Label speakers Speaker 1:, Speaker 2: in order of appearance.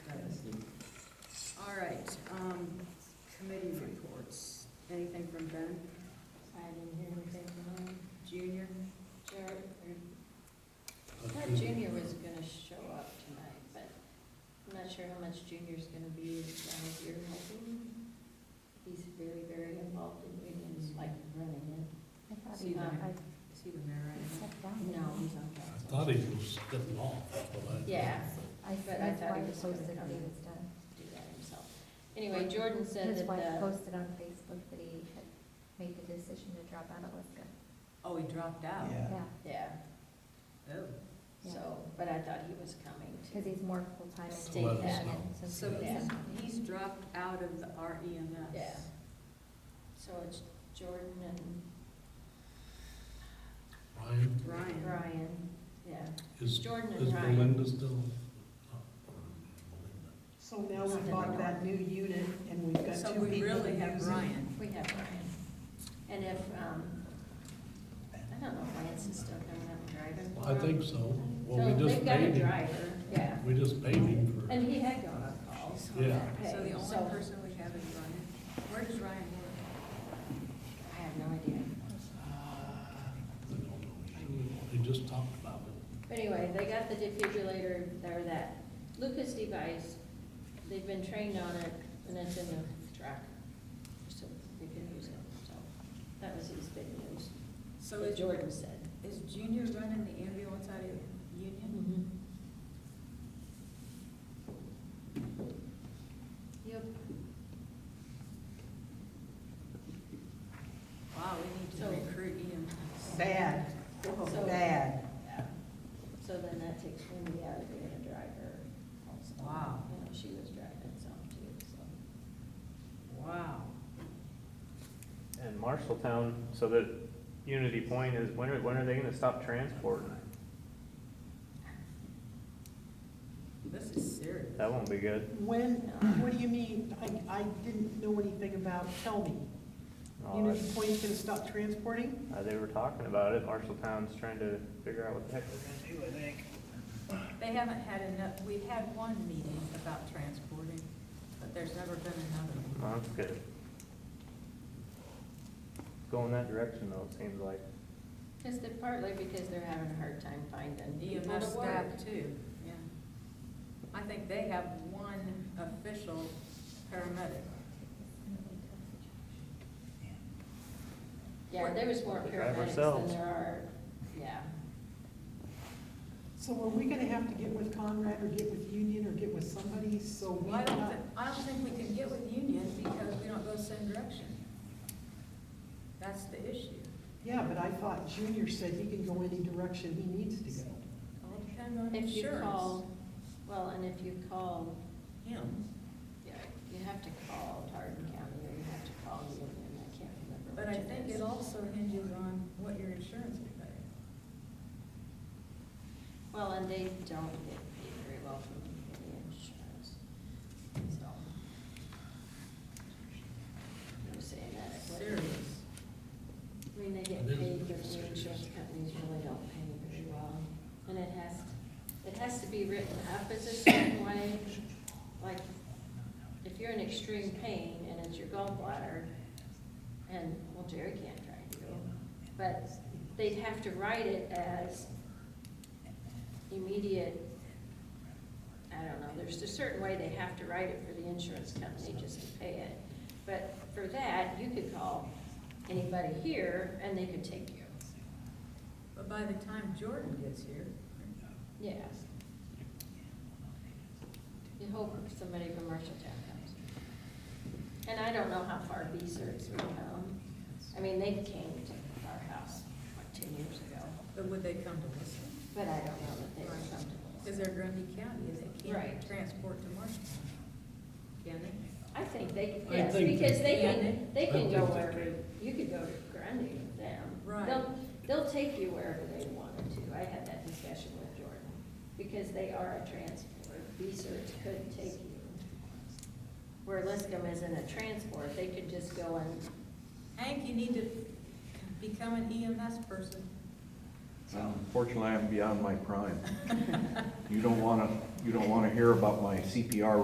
Speaker 1: um, sure how much Junior's gonna be as long as you're helping. He's very, very involved in unions, like running it.
Speaker 2: I thought
Speaker 1: See
Speaker 2: he,
Speaker 1: that?
Speaker 2: I
Speaker 1: Is he the mayor right
Speaker 2: stepped down.
Speaker 1: now? No, he's on
Speaker 3: I
Speaker 1: council.
Speaker 3: thought he was stepping off, but I.
Speaker 1: Yeah,
Speaker 2: I,
Speaker 1: but I
Speaker 2: that's
Speaker 1: thought
Speaker 2: why
Speaker 1: he
Speaker 2: I
Speaker 1: was gonna
Speaker 2: posted that he
Speaker 1: come.
Speaker 2: was done.
Speaker 1: do that himself. Anyway, Jordan said
Speaker 2: His
Speaker 1: that
Speaker 2: wife
Speaker 1: the,
Speaker 2: posted on Facebook that he had made the decision to drop out of Liska.
Speaker 1: oh, he dropped out.
Speaker 4: Yeah.
Speaker 2: Yeah,
Speaker 1: Yeah,
Speaker 4: Oh.
Speaker 2: Yeah.
Speaker 1: so, but I thought he was coming
Speaker 2: because
Speaker 1: too.
Speaker 2: he's more full-time. in
Speaker 1: State
Speaker 2: Michigan,
Speaker 1: that.
Speaker 2: so
Speaker 1: So
Speaker 2: he
Speaker 1: yeah.
Speaker 2: doesn't-
Speaker 5: He's dropped out of E the REMS.
Speaker 1: Yeah. So it's Jordan and
Speaker 3: Ryan,
Speaker 5: Ryan.
Speaker 1: Brian, yeah. It's
Speaker 3: is,
Speaker 1: Jordan
Speaker 3: is
Speaker 1: and Ryan.
Speaker 3: Belinda still? not- Belinda.
Speaker 6: So now we bought that new unit and we've got
Speaker 5: So
Speaker 6: two
Speaker 5: we
Speaker 6: people
Speaker 5: really have
Speaker 6: using it.
Speaker 5: Ryan.
Speaker 1: We have Ryan. And if, um, I don't know if Lance is still coming up driving.
Speaker 3: I think so. Well, we
Speaker 1: So
Speaker 3: just
Speaker 1: they've got a
Speaker 3: paid him,
Speaker 1: driver, yeah.
Speaker 3: we just paid him for,
Speaker 1: And he had gone on calls. on
Speaker 3: Yeah.
Speaker 1: that
Speaker 5: So
Speaker 1: pay,
Speaker 5: the only person we have is Ryan. Where does Ryan work?
Speaker 1: I have no idea.
Speaker 3: I don't know, they just talked about it.
Speaker 1: But Anyway, they got the defibrillator, or that Lucas device, they've been trained on it, and it's in the truck, so they can use it, so that was his big news,
Speaker 5: So
Speaker 1: what
Speaker 5: is,
Speaker 1: Jordan said.
Speaker 5: is Junior running the ambulance out of Union?
Speaker 1: Yep,
Speaker 5: Wow, we
Speaker 1: So-
Speaker 5: need to recruit E him.
Speaker 6: Bad,
Speaker 1: So-
Speaker 6: oh, bad.
Speaker 1: yeah. so then that takes Wendy out of being a driver also.
Speaker 5: Wow.
Speaker 1: You know, she was driving some too, so.
Speaker 5: Wow.
Speaker 7: And Marshalltown, so that Unity Point is, when are, when are they gonna stop transporting?
Speaker 5: This is serious.
Speaker 7: That won't be good.
Speaker 6: When, what do you mean, I, I didn't know anything about, tell me.
Speaker 7: Oh,
Speaker 6: Unity
Speaker 7: that's-
Speaker 6: Point's gonna stop transporting?
Speaker 7: Uh, they were talking about it, Marshalltown's trying to figure out what the heck they're gonna do, I think.
Speaker 5: They haven't had enough, we've had one meeting about transporting, but there's never been another one.
Speaker 7: Well, that's good. Going that direction though, it seems like.
Speaker 1: Cause they're partly because they're having a hard time finding people to
Speaker 5: EMS
Speaker 1: work.
Speaker 5: staff too, yeah. I think they have one official paramedic.
Speaker 1: Yeah, there was more
Speaker 7: They
Speaker 1: paramedics
Speaker 7: drive
Speaker 1: than
Speaker 7: ourselves.
Speaker 1: there are, yeah.
Speaker 6: So are we gonna have to get with Conrad or get with Union or get with somebody, so we
Speaker 5: Well, I don't,
Speaker 6: not?
Speaker 5: thi- I don't think we can get with union because we don't go the same direction. That's the issue.
Speaker 6: Yeah, but I thought Junior said he can go any direction he needs to go.
Speaker 5: All depends on
Speaker 1: If you
Speaker 5: insurance.
Speaker 1: call, well, and if you call,
Speaker 5: Him.
Speaker 1: yeah, you have to call Hardin County or you have to call Union, I can't remember.
Speaker 5: But I
Speaker 1: which
Speaker 5: think it
Speaker 1: is.
Speaker 5: also hinges on what your insurance will pay.
Speaker 1: Well, and they don't get paid very well from the insurance, so. I'm saying that. but-
Speaker 5: Serious.
Speaker 1: I mean, they get
Speaker 3: It is
Speaker 1: paid, but
Speaker 3: pretty
Speaker 1: the
Speaker 3: serious.
Speaker 1: insurance companies really don't pay very well. And it has, it has to be written up as a certain way, like, if you're in extreme pain and it's your gallbladder, and, well, Jerry can't drive you, but they'd have to write it as immediate, I don't know, there's a certain way they have to write it for the insurance company just to pay it. But for that, you could call anybody here and they could take you.
Speaker 5: But by the time Jordan gets here,
Speaker 1: Yes. You hope somebody from Marshalltown comes. And I don't know how far B-Certs will come. I mean, they came to our house like ten years ago,
Speaker 5: but would they come to listen?
Speaker 1: but I don't know that they would come to
Speaker 5: Because
Speaker 1: us.
Speaker 5: they're Grundy County, they
Speaker 1: Right.
Speaker 5: can't transport to Marshalltown. Can they?
Speaker 1: I think they,
Speaker 3: I think
Speaker 1: yes,
Speaker 3: they-
Speaker 1: because they
Speaker 5: Yeah,
Speaker 1: can, they
Speaker 3: I
Speaker 1: can
Speaker 3: think
Speaker 1: go
Speaker 3: they
Speaker 1: wherever,
Speaker 3: can.
Speaker 1: you could go to Grundy with them.
Speaker 5: Right.
Speaker 1: They'll, they'll take you wherever they wanted to. I had that discussion with Jordan, because they are a transport. B-Cert could take you. Where Liscum isn't a transport, they could just go and,
Speaker 5: Hank, you need to become an EMS person.
Speaker 8: Unfortunately, I'm beyond my prime. You don't want to, you don't want to hear about my CPR